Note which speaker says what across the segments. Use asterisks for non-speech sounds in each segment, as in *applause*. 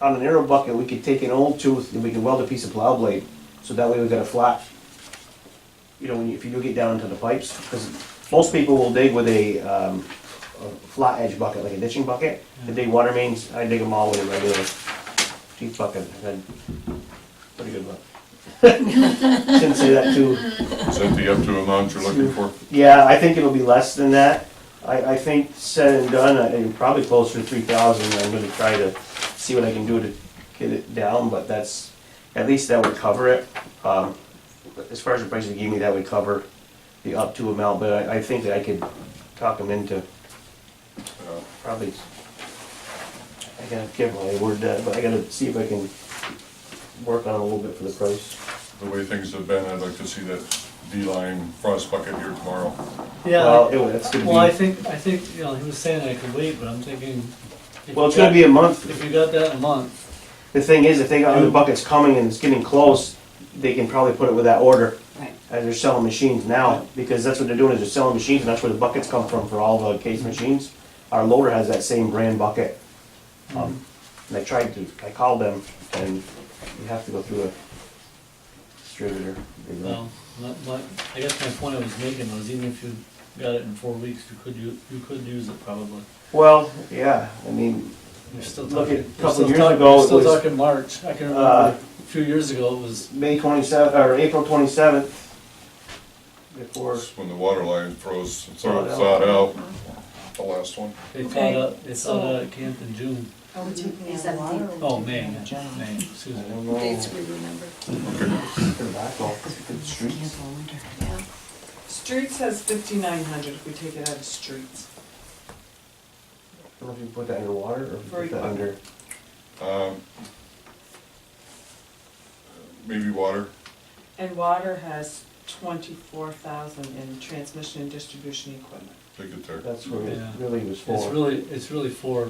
Speaker 1: on an arrow bucket, we could take an old tooth and we could weld a piece of plow blade, so that way we got a flat. You know, when you- if you do get down into the pipes, because most people will dig with a, um, a flat edge bucket, like a ditching bucket, to dig water mains, I dig them all with a regular teeth bucket, and then, pretty good luck. *laughs* Shouldn't say that too.
Speaker 2: Is that the up to amount you're looking for?
Speaker 1: Yeah, I think it'll be less than that. I, I think said and done, I- I'm probably closer to three thousand, I'm gonna try to see what I can do to get it down, but that's, at least that would cover it. Um, but As far as the price they gave me, that would cover the up to amount, but I, I think that I could talk them into
Speaker 2: Uh,
Speaker 1: probably, I gotta give my word that, but I gotta see if I can work on it a little bit for the price.
Speaker 2: The way things have been, I'd like to see that D-line frost bucket here tomorrow.
Speaker 1: Well,
Speaker 3: Yeah,
Speaker 1: it- that's gonna be.
Speaker 3: well, I think, I think, you know, he was saying I could wait, but I'm thinking. if you
Speaker 1: Well, it's gonna
Speaker 3: got-
Speaker 1: be a month.
Speaker 3: If you got that in a month,
Speaker 1: The thing is, if they got other buckets coming and it's getting close, they can probably put it with that order.
Speaker 4: Right.
Speaker 1: As they're selling machines now, because that's what they're doing, is they're selling machines, and that's where the buckets come from for all the case machines. Our loader has that same brand bucket. Um, And I tried to, I called them, and you have to go through a distributor. you know.
Speaker 3: well, my- my, I guess my point I was making was even if you got it in four weeks, you could, u- you could use it probably.
Speaker 1: Well, yeah, I mean,
Speaker 3: You're still
Speaker 1: Look
Speaker 3: talking.
Speaker 1: at a
Speaker 3: you're
Speaker 1: couple
Speaker 3: still
Speaker 1: years
Speaker 3: talk-
Speaker 1: ago,
Speaker 3: you're
Speaker 1: it
Speaker 3: Still
Speaker 1: was-
Speaker 3: talking March, I can
Speaker 1: Uh,
Speaker 3: remember, a few years ago, it was,
Speaker 1: May twenty-seventh, or April twenty-seventh, before,
Speaker 2: That's When the water line froze, it's all
Speaker 1: Thawed out. Mm-hmm.
Speaker 2: thawed out, the last one.
Speaker 3: they thought,
Speaker 5: Okay,
Speaker 3: out- they thought
Speaker 5: so-
Speaker 3: out at camp in June,
Speaker 5: Are we taking
Speaker 4: Is
Speaker 5: it
Speaker 4: that
Speaker 5: out of water? or
Speaker 3: oh,
Speaker 5: we
Speaker 3: May,
Speaker 5: taking it
Speaker 3: yeah,
Speaker 5: out of general?
Speaker 1: I
Speaker 3: May, excuse me.
Speaker 1: don't know.
Speaker 5: Dates we remember,
Speaker 1: Tobacco, the streets.
Speaker 5: yeah.
Speaker 6: Streets has fifty-nine hundred if we take it out of streets.
Speaker 1: I don't know if you put that underwater or if you
Speaker 6: For
Speaker 1: put that
Speaker 6: equipment.
Speaker 1: under.
Speaker 2: Um, Maybe water,
Speaker 6: And water has twenty-four thousand in transmission and distribution equipment.
Speaker 2: take it there.
Speaker 1: That's where it
Speaker 3: Yeah.
Speaker 1: really was for.
Speaker 3: It's really, it's really for,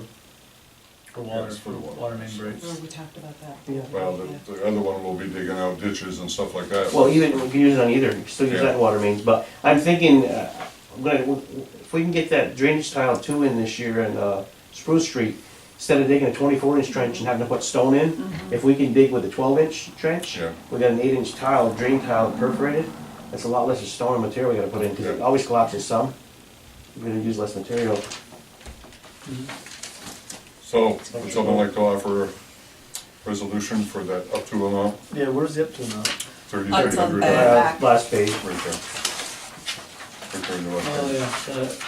Speaker 3: for
Speaker 2: Yeah,
Speaker 3: water,
Speaker 2: it's
Speaker 3: for
Speaker 2: for water.
Speaker 3: water main
Speaker 5: Hmm.
Speaker 3: breaks.
Speaker 5: Mm.
Speaker 6: Remember, we talked about that.
Speaker 1: Yeah.
Speaker 2: Well, the, the other one will be digging out ditches and stuff like that.
Speaker 1: Well, even, we can use it on either, you can still use that in water mains, but I'm thinking, uh, I'm gonna, if we can get that drainage tile two in this year in, uh, Spruce Street, instead of digging a twenty-four inch trench and having to put stone in, if we can dig with a twelve inch trench,
Speaker 2: Yeah.
Speaker 1: we got an eight inch tile, drain tile perforated, that's a lot less of stone and material we gotta put in, cause it
Speaker 2: Yeah.
Speaker 1: always collapses some. We're gonna use less material.
Speaker 2: So, would someone like to offer a resolution for that up to amount,
Speaker 3: Yeah, where's the up to now?
Speaker 5: Oh,
Speaker 2: thirty-three
Speaker 5: it's on
Speaker 2: hundred?
Speaker 5: the
Speaker 2: Right
Speaker 5: back.
Speaker 1: Uh, Last page.
Speaker 2: there. Right there in the left
Speaker 3: Oh,
Speaker 2: hand.
Speaker 3: yeah, that,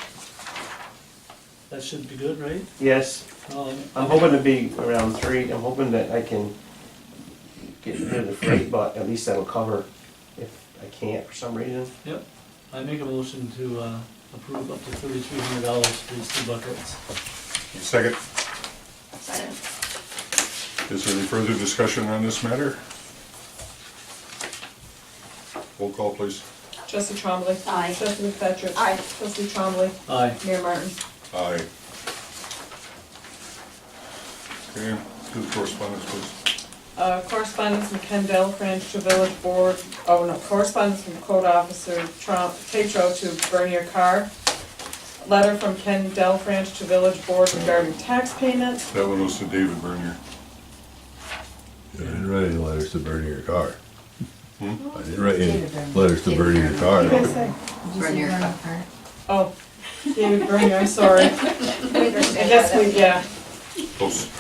Speaker 3: that should be good, right?
Speaker 1: Yes,
Speaker 3: Um,
Speaker 1: I'm hoping to be around three, I'm hoping that I can get rid of the freight, but at least that'll cover if I can't for some reason.
Speaker 3: Yep, I make a motion to, uh, approve up to thirty-three hundred dollars for these two buckets.
Speaker 2: Second,
Speaker 5: Second.
Speaker 2: is there any further discussion on this matter? Roll call, please.
Speaker 6: Trustee Trombley.
Speaker 5: Aye.
Speaker 6: Trustee McFetrich.
Speaker 5: Aye.
Speaker 6: Trustee Trombley.
Speaker 3: Aye,
Speaker 6: Mayor Martin.
Speaker 2: Aye. Okay, do the correspondence, please.
Speaker 6: Uh, correspondence from Ken Delafranche to village board, oh no, correspondence from code officer Trom, Tetro to Bernier Carr. Letter from Ken Delafranche to village board regarding tax payments.
Speaker 2: That one was to David Bernier.
Speaker 7: I didn't write any letters to burn your car.
Speaker 2: Hmm?
Speaker 7: I didn't write any
Speaker 5: David Byrne.
Speaker 7: letters to burn your car.
Speaker 6: What did I say?
Speaker 5: Burn your cup.
Speaker 6: Oh, David Bernier, I'm sorry. I guess we, yeah.
Speaker 2: Close.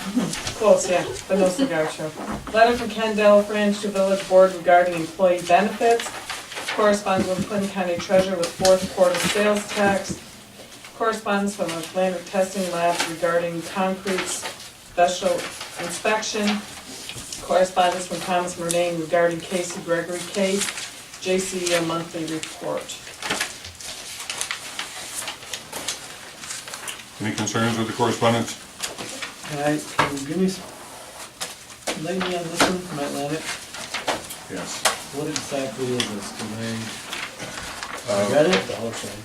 Speaker 6: Close, yeah, but no cigar show. Letter from Ken Delafranche to Village Board regarding employee benefits. Correspondence with Clinton County Treasurer with fourth quarter sales tax. Correspondence from Atlantic Testing Labs regarding concrete special inspection. Correspondence from Thomas Murnane regarding Casey Gregory case, JCE monthly report.
Speaker 2: Any concerns with the correspondence?
Speaker 3: can I, can you give me, s- enlighten me on this one from Atlantic?
Speaker 2: Yes.
Speaker 3: What exactly is this, 'Cause I, I read it, Uh, the whole thing.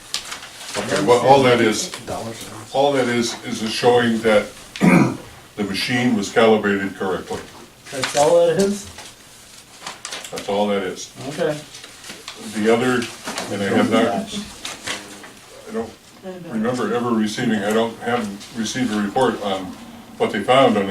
Speaker 2: Okay, well, all that is,
Speaker 1: Dollar signs.
Speaker 2: all that is, is a showing that *clears throat* the machine was calibrated correctly.
Speaker 3: That's all that is?
Speaker 2: That's all that is.
Speaker 3: Okay.
Speaker 2: The other, and I have not, I don't remember ever receiving, I don't, haven't received a report on what they found on